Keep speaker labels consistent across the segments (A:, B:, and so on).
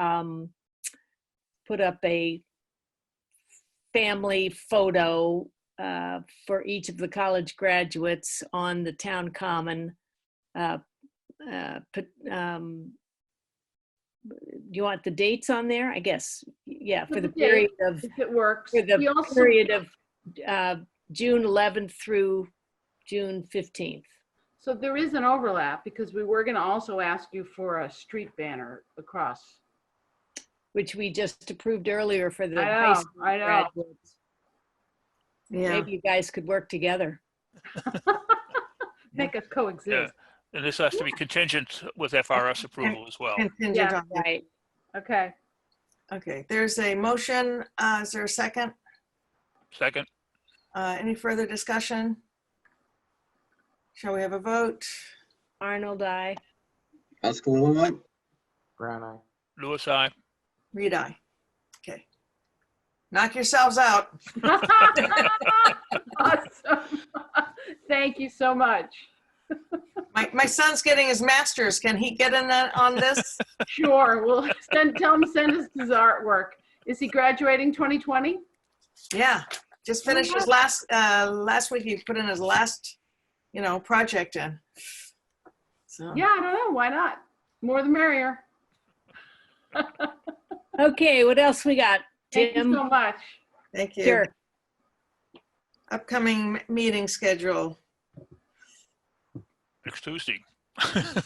A: um, put up a family photo uh, for each of the college graduates on the town common. Uh, uh, put, um, You want the dates on there? I guess, yeah, for
B: Put
A: the
B: the date.
A: period of,
B: if it works.
A: for
B: We
A: the
B: also-
A: period of uh, June 11th through June 15th.
B: So there is an overlap because we were going to also ask you for a street banner across.
A: which we just approved earlier for the
B: I
A: high
B: know,
A: school
B: I know.
A: graduates.
C: Yeah,
A: Maybe you guys could work together.
B: Make us coexist.
D: And this has to be contingent with FRS approval as well.
C: contingent on that.
A: Right.
B: Okay.
C: Okay, there's a motion. Uh, is there a second?
D: Second,
C: Uh, any further discussion? Shall we have a vote?
A: Arnold, I.
E: Councilwoman White,
F: Brown eye.
D: Louis, I.
C: Read aye. Okay. Knock yourselves out.
B: Awesome. Thank you so much.
C: My, my son's getting his master's. Can he get in that, on this?
B: Sure, we'll send, tell him send us his artwork. Is he graduating 2020?
C: Yeah, just finished his last, uh, last week, he put in his last, you know, project in. So,
B: Yeah, I don't know, why not? More the merrier.
A: Okay, what else we got?
B: Thank you so
A: Tim?
B: much.
C: thank you.
A: Sure.
C: Upcoming m- meeting schedule.
D: next Tuesday.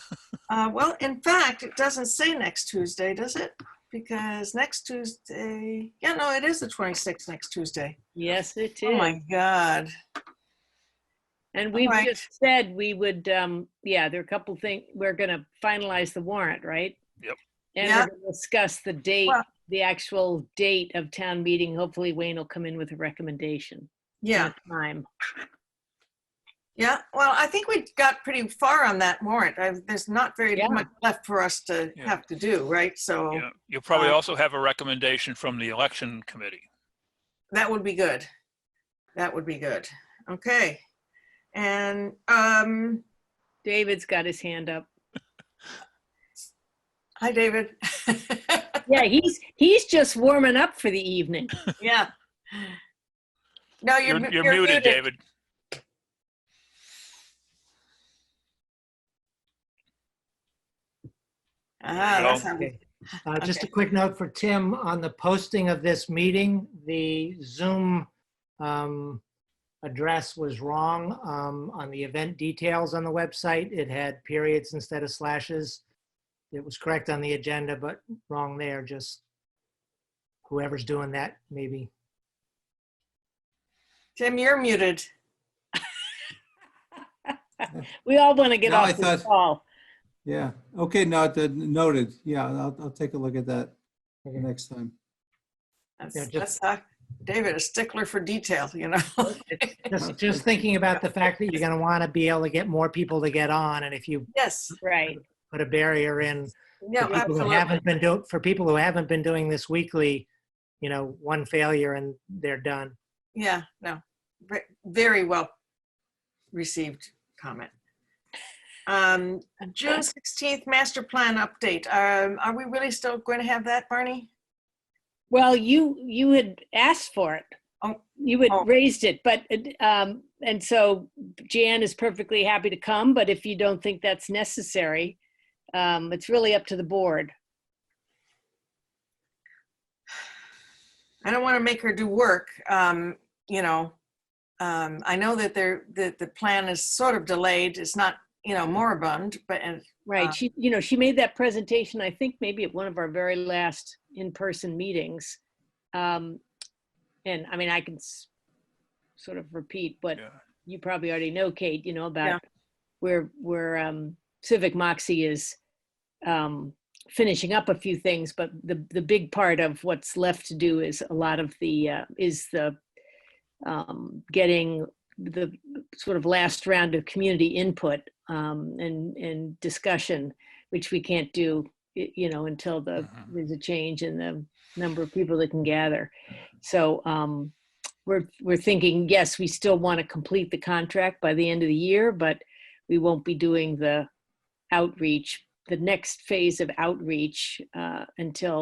C: Uh, well, in fact, it doesn't say next Tuesday, does it? Because next Tuesday, yeah, no, it is the 26th next Tuesday.
A: Yes, it
C: Oh
A: is.
C: my God.
A: And we've
C: Alright.
A: just said we would, um, yeah, there are a couple things, we're gonna finalize the warrant, right?
D: Yep.
A: And
C: Yeah.
A: we're gonna discuss the date,
C: Well-
A: the actual date of town meeting. Hopefully Wayne will come in with a recommendation.
C: Yeah,
A: and a Time.
C: yeah. Well, I think we got pretty far on that warrant. I, there's not very
A: Yeah.
C: much left for us to
D: Yeah.
C: have to do, right? So
D: Yeah. You'll probably
C: Uh,
D: also have a recommendation from the election committee.
C: that would be good. That would be good. Okay. And, um,
A: David's got his hand up.
C: hi, David.
A: Yeah, he's, he's just warming up for the evening.
C: Yeah. No, you're,
D: You're you're muted, David.
C: Ah,
D: There you
C: that's
D: go.
C: how we-
G: Uh, Just a quick note for Tim on the posting of this meeting, the Zoom um, address was wrong um, on the event details on the website. It had periods instead of slashes. It was correct on the agenda, but wrong there, just whoever's doing that, maybe.
C: Tim, you're muted.
A: We all want to get
H: No, I
A: off this
H: thought-
A: call.
H: Yeah, okay, no, that- noted, yeah, I'll, I'll take a look at that
G: Okay.
H: next time.
C: That's,
G: Yeah, just-
C: that's uh, David, a stickler for detail, you know?
G: Just, just thinking about the fact that you're going to want to be able to get more people to get on, and if you
C: yes.
A: Right.
G: put a barrier in,
C: No,
G: for people who
C: absolutely.
G: haven't been doing for people who haven't been doing this weekly you know one failure and they're done
C: Yeah, no. Ve- Very well received comment. Um, June 16th, master plan update. Um, are we really still going to have that, Barney?
A: Well, you, you had asked for it.
C: Oh.
A: You had
C: Oh.
A: raised it, but, um, and so Jan is perfectly happy to come, but if you don't think that's necessary, um, it's really up to the board.
C: I don't want to make her do work, um, you know. Um, I know that there, that the plan is sort of delayed. It's not, you know, moribund, but, and Uh,
A: Right. She, you know, she made that presentation, I think maybe at one of our very last in-person meetings. Um, and I mean, I can s- sort of repeat what
D: Yeah.
A: you probably already know, Kate, you know,
C: Yeah.
A: about where, where um, Civic Moxie is um, finishing up a few things, but the, the big part of what's left to do is a lot of the, uh, is the um, getting the sort of last round of community input um, and, and discussion, which we can't do, y- you know, until the,
D: Mhm.
A: there's a change in the number of people that can gather. So um, we're, we're thinking, yes, we still want to complete the contract by the end of the year, but we won't be doing the outreach the next phase of outreach uh, until